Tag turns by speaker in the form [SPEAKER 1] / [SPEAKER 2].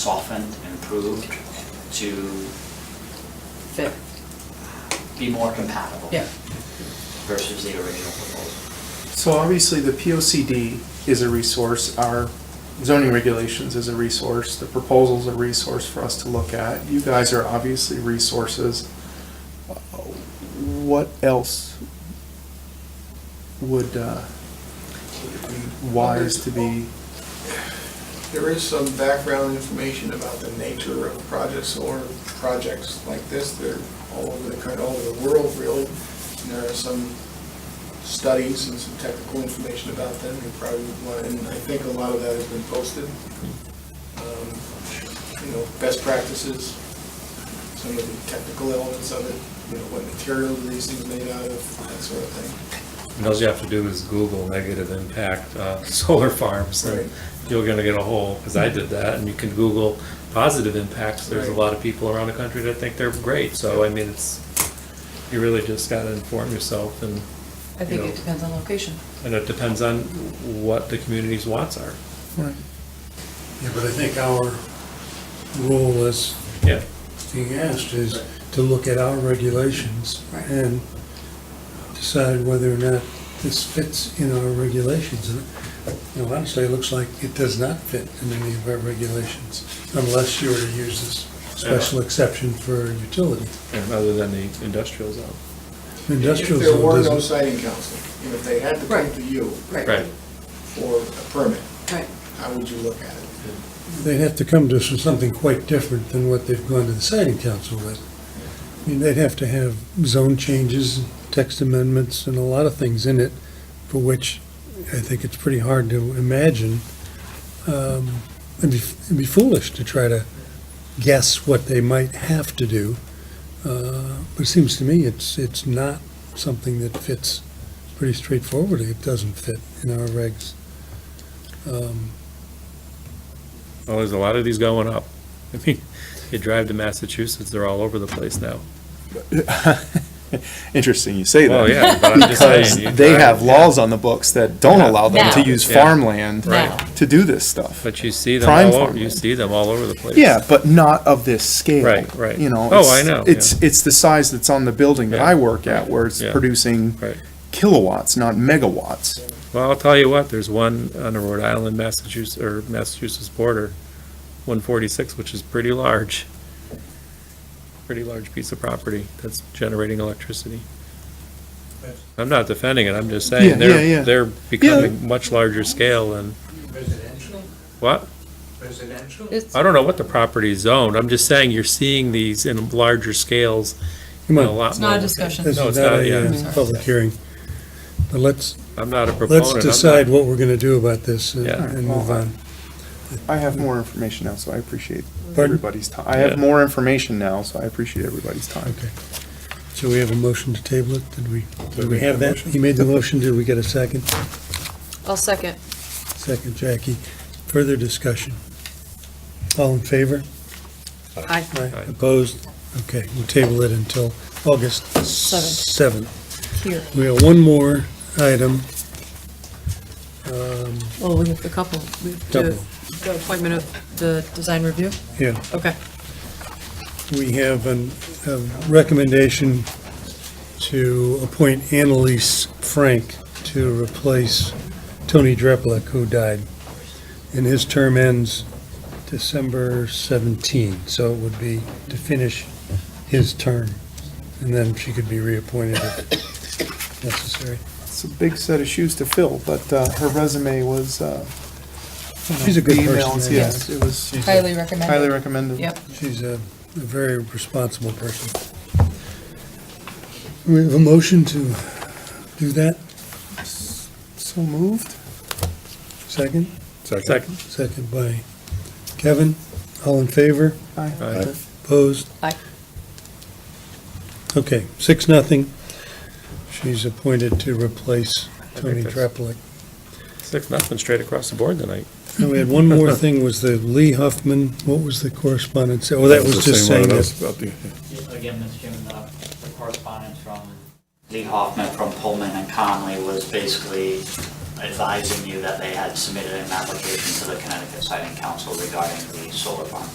[SPEAKER 1] softened, improved to
[SPEAKER 2] fit.
[SPEAKER 1] be more compatible.
[SPEAKER 2] Yeah.
[SPEAKER 1] Versus the original proposal.
[SPEAKER 3] So obviously, the POCD is a resource, our zoning regulations is a resource, the proposal's a resource for us to look at. You guys are obviously resources. What else would, uh, wise to be,
[SPEAKER 4] There is some background information about the nature of projects or projects like this. They're all over the, kind of all over the world, really. And there are some studies and some technical information about them. You probably would want, and I think a lot of that has been posted. Um, You know, best practices, some of the technical elements of it, you know, what material are these things made out of, that sort of thing.
[SPEAKER 5] And all you have to do is Google negative impact uh, solar farms,
[SPEAKER 4] Right.
[SPEAKER 5] and you're gonna get a whole, because I did that, and you can Google positive impacts, there's a
[SPEAKER 4] Right.
[SPEAKER 5] lot of people around the country that think they're great, so I mean, it's, you really just gotta inform yourself, and,
[SPEAKER 2] I think
[SPEAKER 5] You know.
[SPEAKER 2] it depends on location.
[SPEAKER 5] and it depends on what the community's wants are.
[SPEAKER 3] right,
[SPEAKER 6] Yeah, but I think our role as
[SPEAKER 5] Yeah.
[SPEAKER 6] being asked is to look at our regulations
[SPEAKER 2] Right.
[SPEAKER 6] and decide whether or not this fits in our regulations. And, you know, honestly, it looks like it does not fit in any of our regulations unless you were to use this special exception for utility.
[SPEAKER 5] And other than the industrial zone.
[SPEAKER 6] Industrial
[SPEAKER 4] If there were
[SPEAKER 6] zone
[SPEAKER 4] no
[SPEAKER 6] doesn't.
[SPEAKER 4] siting council, and if they had to come
[SPEAKER 2] Right.
[SPEAKER 4] to you
[SPEAKER 2] Right,
[SPEAKER 4] for a permit,
[SPEAKER 2] right.
[SPEAKER 4] how would you look at it?
[SPEAKER 6] They'd have to come to us with something quite different than what they've gone to the siting council with. I mean, they'd have to have zone changes, text amendments, and a lot of things in it for which I think it's pretty hard to imagine. Um, It'd be it'd be foolish to try to guess what they might have to do. Uh, But it seems to me it's, it's not something that fits pretty straightforwardly. It doesn't fit in our regs. Um,
[SPEAKER 5] Well, there's a lot of these going up. I mean, you drive to Massachusetts, they're all over the place now.
[SPEAKER 3] interesting you say that.
[SPEAKER 5] Well, yeah, but I'm just
[SPEAKER 3] Because
[SPEAKER 5] saying. you
[SPEAKER 3] they
[SPEAKER 5] drive-
[SPEAKER 3] have laws on the books that don't allow them to
[SPEAKER 2] Now.
[SPEAKER 3] use
[SPEAKER 5] Yeah.
[SPEAKER 3] farmland
[SPEAKER 2] Now.
[SPEAKER 3] to do this stuff.
[SPEAKER 5] But you see them
[SPEAKER 3] Prime
[SPEAKER 5] all, over-
[SPEAKER 3] farmland.
[SPEAKER 5] you see them all over the place.
[SPEAKER 3] Yeah, but not of this scale.
[SPEAKER 5] Right, right.
[SPEAKER 3] You know.
[SPEAKER 5] Oh,
[SPEAKER 3] it's-
[SPEAKER 5] I know,
[SPEAKER 3] It's, it's the size that's on the building that
[SPEAKER 5] Yeah.
[SPEAKER 3] I work at, where it's
[SPEAKER 5] Yeah.
[SPEAKER 3] producing
[SPEAKER 5] Right.
[SPEAKER 3] kilowatts, not megawatts.
[SPEAKER 5] Well, I'll tell you what, there's one on the Rhode Island, Massachusetts, or Massachusetts border, one forty-six, which is pretty large. Pretty large piece of property that's generating electricity. I'm not defending it, I'm just
[SPEAKER 3] Yeah,
[SPEAKER 5] saying,
[SPEAKER 3] yeah, yeah.
[SPEAKER 5] they're, they're becoming much larger scale and,
[SPEAKER 7] Residential,
[SPEAKER 5] what?
[SPEAKER 7] residential?
[SPEAKER 2] It's,
[SPEAKER 5] I don't know what the property is zoned, I'm just saying you're seeing these in larger scales in
[SPEAKER 6] Come
[SPEAKER 5] a
[SPEAKER 6] on,
[SPEAKER 5] lot
[SPEAKER 2] it's
[SPEAKER 5] more.
[SPEAKER 2] not a discussion.
[SPEAKER 6] This
[SPEAKER 5] No,
[SPEAKER 6] is
[SPEAKER 5] it's
[SPEAKER 6] not
[SPEAKER 5] not, yeah.
[SPEAKER 6] a
[SPEAKER 2] Sorry.
[SPEAKER 6] uh, public hearing. But let's,
[SPEAKER 5] I'm not a proponent.
[SPEAKER 6] let's
[SPEAKER 5] I'm not-
[SPEAKER 6] decide what we're going to do about this and
[SPEAKER 5] Yeah.
[SPEAKER 6] and move on.
[SPEAKER 3] I have more information now, so I appreciate
[SPEAKER 6] Pardon?
[SPEAKER 3] everybody's time. I have
[SPEAKER 5] Yeah.
[SPEAKER 3] more information now, so I appreciate everybody's time.
[SPEAKER 6] Okay. So we have a motion to table it? Did we,
[SPEAKER 5] Did
[SPEAKER 6] did
[SPEAKER 5] we
[SPEAKER 6] we have that? He made the motion. Did we get a second?
[SPEAKER 2] I'll second.
[SPEAKER 6] Second, Jackie. Further discussion? All in favor?
[SPEAKER 2] Aye.
[SPEAKER 5] Aye.
[SPEAKER 6] Opposed? Okay, we'll table it until August 7th.
[SPEAKER 2] Here,
[SPEAKER 6] We have one more item. Um,
[SPEAKER 2] well, we have a couple. We have to-
[SPEAKER 6] Couple.
[SPEAKER 2] The appointment of the design review?
[SPEAKER 6] Yeah.
[SPEAKER 2] Okay.
[SPEAKER 6] We have an- a recommendation to appoint Annalise Frank to replace Tony Dreplick, who died. And his term ends December 17, so it would be to finish his term. And then she could be reappointed if necessary.
[SPEAKER 3] It's a big set of shoes to fill, but uh, her resume was, uh, you know,
[SPEAKER 6] She's a good
[SPEAKER 3] the
[SPEAKER 6] person,
[SPEAKER 3] emails,
[SPEAKER 6] yeah.
[SPEAKER 3] Yes, it was
[SPEAKER 6] She's a-
[SPEAKER 2] Highly recommended.
[SPEAKER 3] highly recommended.
[SPEAKER 2] Yep.
[SPEAKER 6] She's a a very responsible person. We have a motion to do that?
[SPEAKER 3] So moved?
[SPEAKER 6] Second?
[SPEAKER 5] Second.
[SPEAKER 6] Second by Kevin. All in favor?
[SPEAKER 3] Aye.
[SPEAKER 5] Aye.
[SPEAKER 6] Opposed?
[SPEAKER 2] Aye.
[SPEAKER 6] Okay, six, nothing. She's appointed to replace Tony
[SPEAKER 5] that's-
[SPEAKER 6] Draplik.
[SPEAKER 5] Six, nothing, straight across the board tonight.
[SPEAKER 6] And we had one more thing, was the Lee Huffman, what was the correspondence? Oh, that was just saying that.
[SPEAKER 1] Again, Mr. Chairman, the the correspondence from Lee Hoffman from Pullman and Conley was basically advising you that they had submitted an application to the Connecticut Siting Council regarding the solar farm.